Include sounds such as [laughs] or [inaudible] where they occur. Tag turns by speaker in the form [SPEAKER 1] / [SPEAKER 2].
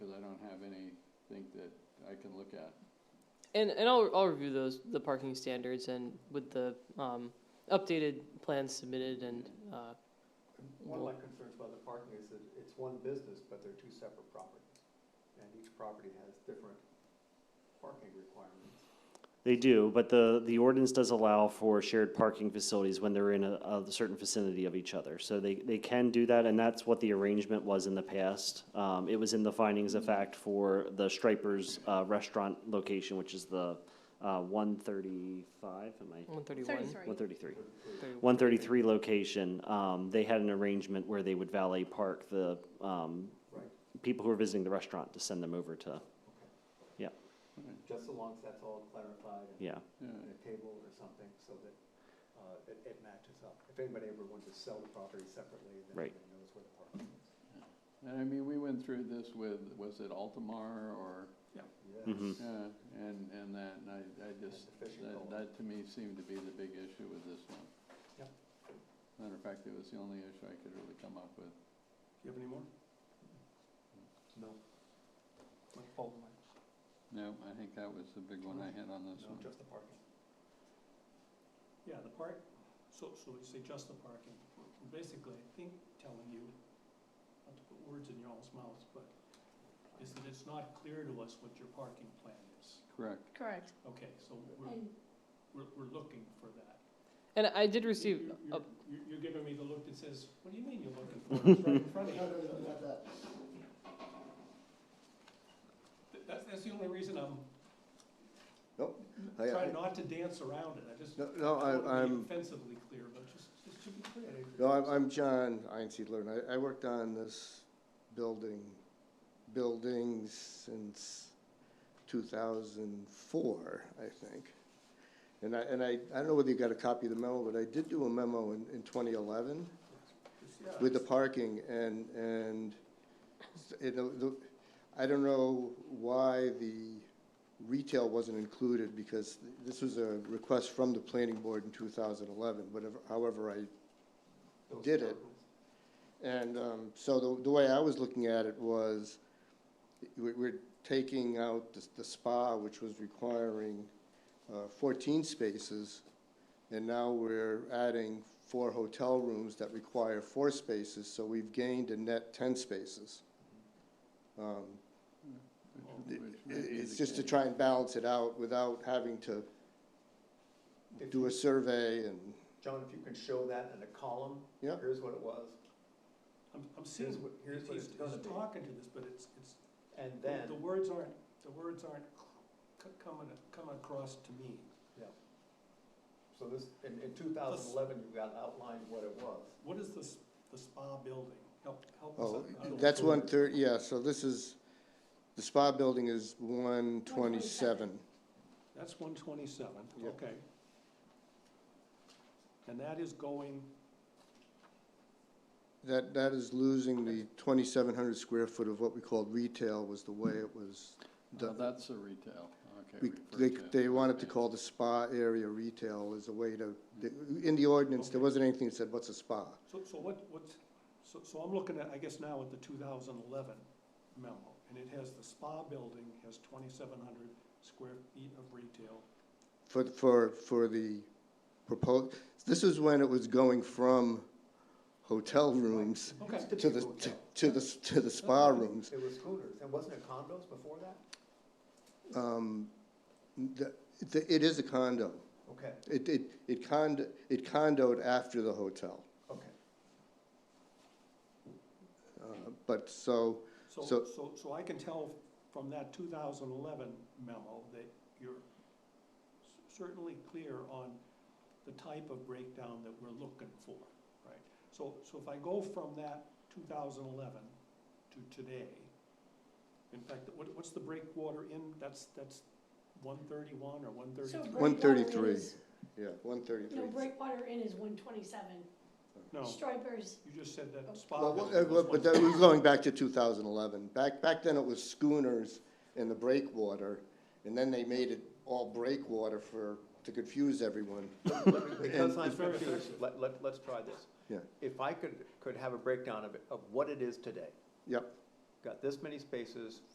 [SPEAKER 1] think that I can look at.
[SPEAKER 2] And, and I'll, I'll review those, the parking standards and with the, um, updated plans submitted and, uh,
[SPEAKER 3] One of my concerns about the parking is that it's one business, but they're two separate properties. And each property has different parking requirements.
[SPEAKER 4] They do, but the, the ordinance does allow for shared parking facilities when they're in a, a certain vicinity of each other. So they, they can do that, and that's what the arrangement was in the past. Um, it was in the findings of fact for the Strippers, uh, restaurant location, which is the, uh, one thirty-five, am I?
[SPEAKER 2] one
[SPEAKER 5] Sorry,
[SPEAKER 2] thirty-one.
[SPEAKER 5] sorry.
[SPEAKER 4] One thirty-three.
[SPEAKER 2] Thirty-one.
[SPEAKER 4] 133 location, um, they had an arrangement where they would valet park the um,
[SPEAKER 3] Right.
[SPEAKER 4] people who are visiting the restaurant to send them over to,
[SPEAKER 3] Just so long as that's all clarified and
[SPEAKER 4] yeah.
[SPEAKER 1] Yeah,
[SPEAKER 3] in a table or something so that uh, it it matches up. If anybody ever wanted to sell the property separately, then
[SPEAKER 4] Right.
[SPEAKER 3] everybody knows where the parking is.
[SPEAKER 1] and I mean, we went through this with, was it Altamar or,
[SPEAKER 3] Yes.
[SPEAKER 4] Mhm.
[SPEAKER 1] yeah, and, and that, and I, I just,
[SPEAKER 3] The fishing
[SPEAKER 1] that,
[SPEAKER 3] pole.
[SPEAKER 1] that to me seemed to be the big issue with this one.
[SPEAKER 3] Yep.
[SPEAKER 1] Matter of fact, it was the only issue I could really come up with.
[SPEAKER 3] You have any more? No. Like Paul, like,
[SPEAKER 1] No, I think that was the big one I had on this
[SPEAKER 3] no,
[SPEAKER 1] one.
[SPEAKER 3] just the parking.
[SPEAKER 6] Yeah, the park, so, so you say just the parking, We're basically, I think, telling you, not to put words in your all's mouths, but is that it's not clear to us what your parking plan is.
[SPEAKER 1] Correct.
[SPEAKER 5] Correct.
[SPEAKER 6] Okay, so we're, we're, we're looking for that.
[SPEAKER 2] And I did receive,
[SPEAKER 6] You-
[SPEAKER 2] a-
[SPEAKER 6] You're, you're- you're giving me the look that says, what do you mean you're looking
[SPEAKER 7] [laughs]
[SPEAKER 6] for, it? it's right in front of you. Th- That's, that's the only reason I'm
[SPEAKER 7] I- I-
[SPEAKER 6] trying not to dance around it, I just
[SPEAKER 7] No, no, I-
[SPEAKER 6] don't wanna be
[SPEAKER 7] I'm-
[SPEAKER 6] offensively clear, but just, just to be clear.
[SPEAKER 7] No, I'm, I'm John Einsiedler, and I, I worked on this building, buildings since two thousand four, I think. And I, and I, I don't know whether you got a copy of the memo, but I did do a memo in, in twenty eleven
[SPEAKER 6] Just- yeah,
[SPEAKER 7] with the parking and, and it, the, I don't know why the retail wasn't included because this was a request from the planning board in two thousand eleven, whatever, however I
[SPEAKER 3] Those
[SPEAKER 7] Did it.
[SPEAKER 3] apartments.
[SPEAKER 7] and um, so the, the way I was looking at it was, we- we're taking out the- the spa, which was requiring uh, 14 spaces, and now we're adding four hotel rooms that require four spaces, so we've gained a net 10 spaces. Um,
[SPEAKER 1] Which-
[SPEAKER 7] it-
[SPEAKER 1] which may be
[SPEAKER 7] It's
[SPEAKER 1] the
[SPEAKER 7] just to
[SPEAKER 1] case.
[SPEAKER 7] try and balance it out without having to
[SPEAKER 3] If
[SPEAKER 7] do
[SPEAKER 3] you-
[SPEAKER 7] a survey and,
[SPEAKER 3] John, if you can show that in a column.
[SPEAKER 7] Yeah.
[SPEAKER 3] Here's what it was,
[SPEAKER 6] I'm, I'm seeing
[SPEAKER 3] here's what, here's
[SPEAKER 6] He's,
[SPEAKER 3] what it's gonna
[SPEAKER 6] he's
[SPEAKER 3] be.
[SPEAKER 6] talking to this, but it's, it's,
[SPEAKER 3] And
[SPEAKER 6] the-
[SPEAKER 3] then,
[SPEAKER 6] the words aren't, the words aren't c- c- coming, coming across to me.
[SPEAKER 3] so this, in, in two thousand eleven, you got outlined what it was.
[SPEAKER 6] What is this, the spa building? Help, help us
[SPEAKER 7] oh,
[SPEAKER 6] out. a little
[SPEAKER 7] that's
[SPEAKER 6] further.
[SPEAKER 7] one third, yeah, so this is, the spa building is 127.
[SPEAKER 6] That's one twenty-seven,
[SPEAKER 7] Yeah.
[SPEAKER 6] okay. And that is going,
[SPEAKER 7] That, that is losing the twenty-seven hundred square foot of what we called retail was the way it was
[SPEAKER 1] Oh,
[SPEAKER 7] done.
[SPEAKER 1] that's the retail, okay.
[SPEAKER 7] We-
[SPEAKER 1] refer
[SPEAKER 7] They,
[SPEAKER 1] to.
[SPEAKER 7] they wanted to
[SPEAKER 1] Okay.
[SPEAKER 7] call the spa area retail as a way to, in the ordinance, there
[SPEAKER 6] Okay.
[SPEAKER 7] wasn't anything that said, what's a spa?
[SPEAKER 6] so, so what, what's, so, so I'm looking at, I guess now at the two thousand eleven memo, and it has the spa building has twenty-seven hundred square feet of retail.
[SPEAKER 7] For, for, for the proposed, this is when it was going from hotel rooms
[SPEAKER 6] Okay,
[SPEAKER 3] It's
[SPEAKER 7] to the,
[SPEAKER 3] typical
[SPEAKER 7] to-
[SPEAKER 3] hotel.
[SPEAKER 7] to the, to the spa rooms.
[SPEAKER 3] It was schooners, and wasn't it condos before that?
[SPEAKER 7] Um, the, the- it is a condo.
[SPEAKER 3] Okay,
[SPEAKER 7] It, it, it condo, it condoed after the hotel.
[SPEAKER 3] okay.
[SPEAKER 7] Uh, But, so,
[SPEAKER 6] So,
[SPEAKER 7] So-
[SPEAKER 6] so, so I can tell from that two thousand eleven memo that you're c- certainly clear on the type of breakdown that we're looking for, right? So, so if I go from that two thousand eleven to today, in fact, what, what's the breakwater in, that's, that's one thirty-one or one
[SPEAKER 5] So
[SPEAKER 6] thirty-three?
[SPEAKER 5] Breakwater
[SPEAKER 7] 133.
[SPEAKER 5] is-
[SPEAKER 7] yeah, one
[SPEAKER 5] No,
[SPEAKER 7] thirty-three.
[SPEAKER 5] Breakwater Inn is one twenty-seven.
[SPEAKER 6] No,
[SPEAKER 5] Stripers,
[SPEAKER 6] you just said that spa
[SPEAKER 7] Well,
[SPEAKER 6] building
[SPEAKER 7] uh,
[SPEAKER 6] was
[SPEAKER 7] well, but that
[SPEAKER 6] 133.
[SPEAKER 7] was going back to two thousand eleven. Back, back then it was schooners and the breakwater, and then they made it all breakwater for, to confuse everyone.
[SPEAKER 3] Because I'm
[SPEAKER 6] It's very
[SPEAKER 3] confused,
[SPEAKER 6] effective.
[SPEAKER 3] let, let, let's try this.
[SPEAKER 7] Yeah.
[SPEAKER 3] If I could, could have a breakdown of, it- of what it is today,
[SPEAKER 7] Yep.
[SPEAKER 3] got this many spaces,